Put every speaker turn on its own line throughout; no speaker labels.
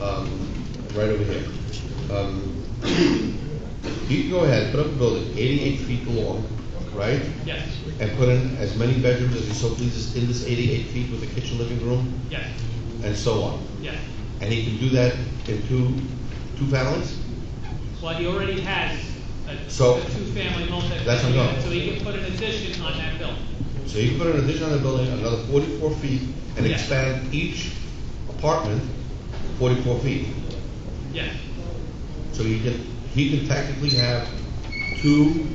Um, right over here. Um, You can go ahead, put up a building eighty-eight feet long, right?
Yes,
And put in as many bedrooms as you so pleases in this eighty-eight feet with a kitchen, living room,
yes,
and so on.
yes.
And he can do that in two, two families?
Well, he already has a a
So-
two-family multi.
That's what I'm going.
So he can put an addition on that building.
So you can put an addition on the building, another forty-four feet, and
Yeah.
expand each apartment forty-four feet.
Yes,
So he can, he can technically have two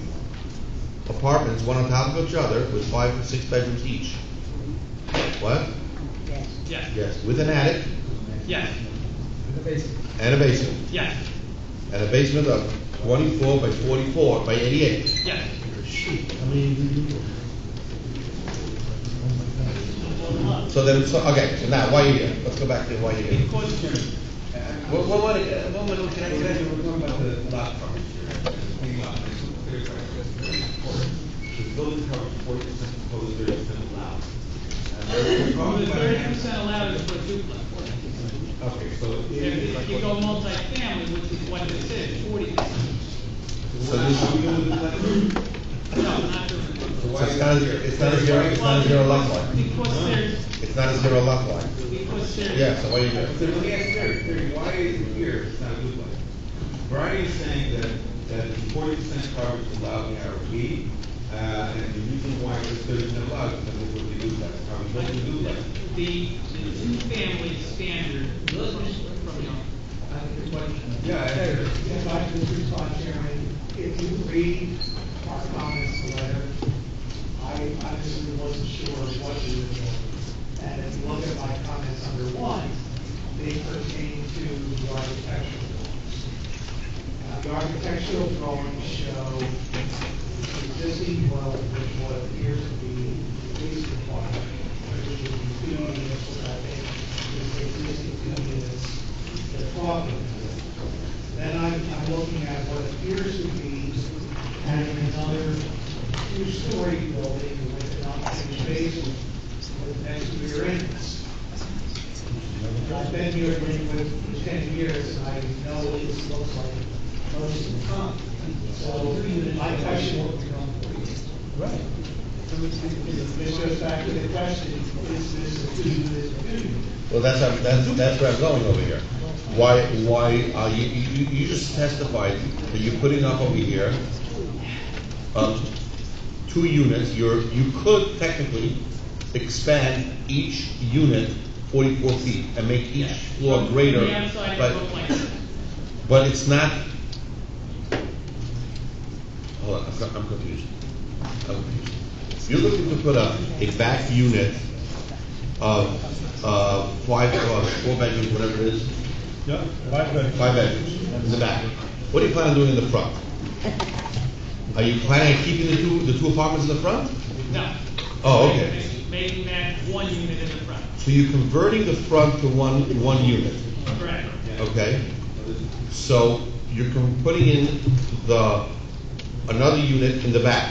apartments, one on top of each other, with five and six bedrooms each. What?
Yes.
yes,
Yes. With an attic
yes,
and a basement,
yes,
and a basement of twenty-four by forty-four by eighty-eight.
yes.
I mean, So then, so, okay, so now, why are you here? Let's go back to why you're here.
Because,
One, one, one, uh, one minute, can I, can I, we're talking about the lot coverage here. Hang on, I just want to clarify, that's very important. The building coverage, forty percent proposed, thirty percent allowed. And we're- we're
well, the
talking about-
thirty percent allowed is for duplex.
Okay, so.
If you go multi-family, which is what this is, forty percent.
So this is.
No, not doing it.
So it's not, a- it's not a zero, it's not a zero lot line.
Because there's,
It's not a zero lot line.
because there's.
Yeah, so why are you here?
So let me ask Terry, Terry, why is it here, it's not a good one? Brian is saying that, that the forty percent coverage is allowed in our B, uh, and the reason why it's thirty percent allowed is because of what they do, that's how we want to do that.
The, the two-family standard, those are from the,
I have a question.
Yeah, I heard it.
If I could respond, Chairman, if you read our comments letter, I obviously wasn't sure what you were doing. And if you look at my comments under one, they pertain to the architectural drawings. Now, the architectural drawings show the existing well, which what appears to be the least requirement, which is the two units, which I think is the existing two units they're talking about. Then I'm, I'm looking at what appears to be adding another two-story building with an unfinished basement with an exterior entrance. I've been here for for ten years, and I know what this looks like most of the time. So my question will be on for you.
Right.
It's just back to the question, is this a two, is it a two?
Well, that's, how- that's, that's where I'm going over here. Why, why, are you, you, you just testified that you're putting up over here, um, two units, you're, you could technically expand each unit forty-four feet and make each floor greater,
From the outside, it looked
but,
like that.
but it's not. Hold on, I'm co- I'm confused. I'm confused. You're looking to put up a back unit of, uh, five, uh, four bedrooms, whatever it is,
Yeah, five bedrooms.
five bedrooms in the back. What do you plan on doing in the front? Are you planning on keeping the two, the two apartments in the front?
No.
Oh, okay.
Making that one unit in the front,
So you're converting the front to one, one unit,
correct?
okay? So you're com- putting in the, another unit in the back.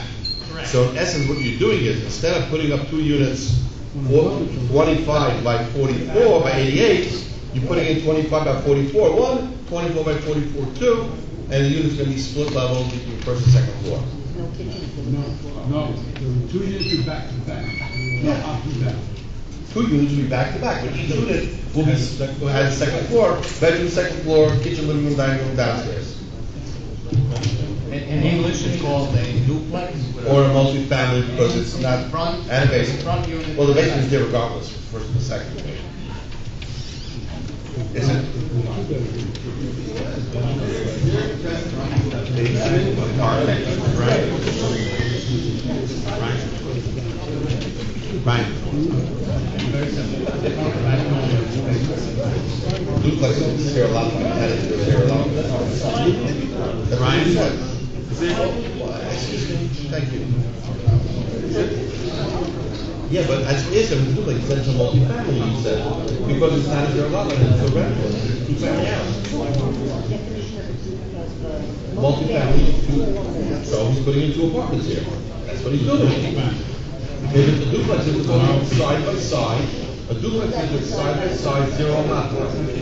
Correct.
So in essence, what you're doing is, instead of putting up two units, four- 25 by 44 by 88, you're putting in 25 by 44, one, 24 by 44, two, and the unit's gonna be split level between first and second floor.
No kitchen.
No, no, there were two units were back to back, not up and down.
Two units will be back to back, but each unit will be, s- has a second floor, bedroom, second floor, kitchen, living room, dining room, downstairs.
In, in English, it's called a duplex. with a-
Or a multifamily, because it's not,
Front-
and a basement.
Front unit.
Well, the basement is there regardless, first and second. Is it? Right. Duplex is zero lot line, that is zero lot line. That's what you said. Excuse me, thank you. Yeah, but as is, a duplex, that's a multifamily, you said, uh, because it's not a zero lot line, it's a rental, it's a two-family house.
Definition of a two, of a.
Multifamily, two, so he's putting in two apartments here, that's what he's doing. If it's a duplex, it's going side by side, a duplex is a side by side, zero lot line.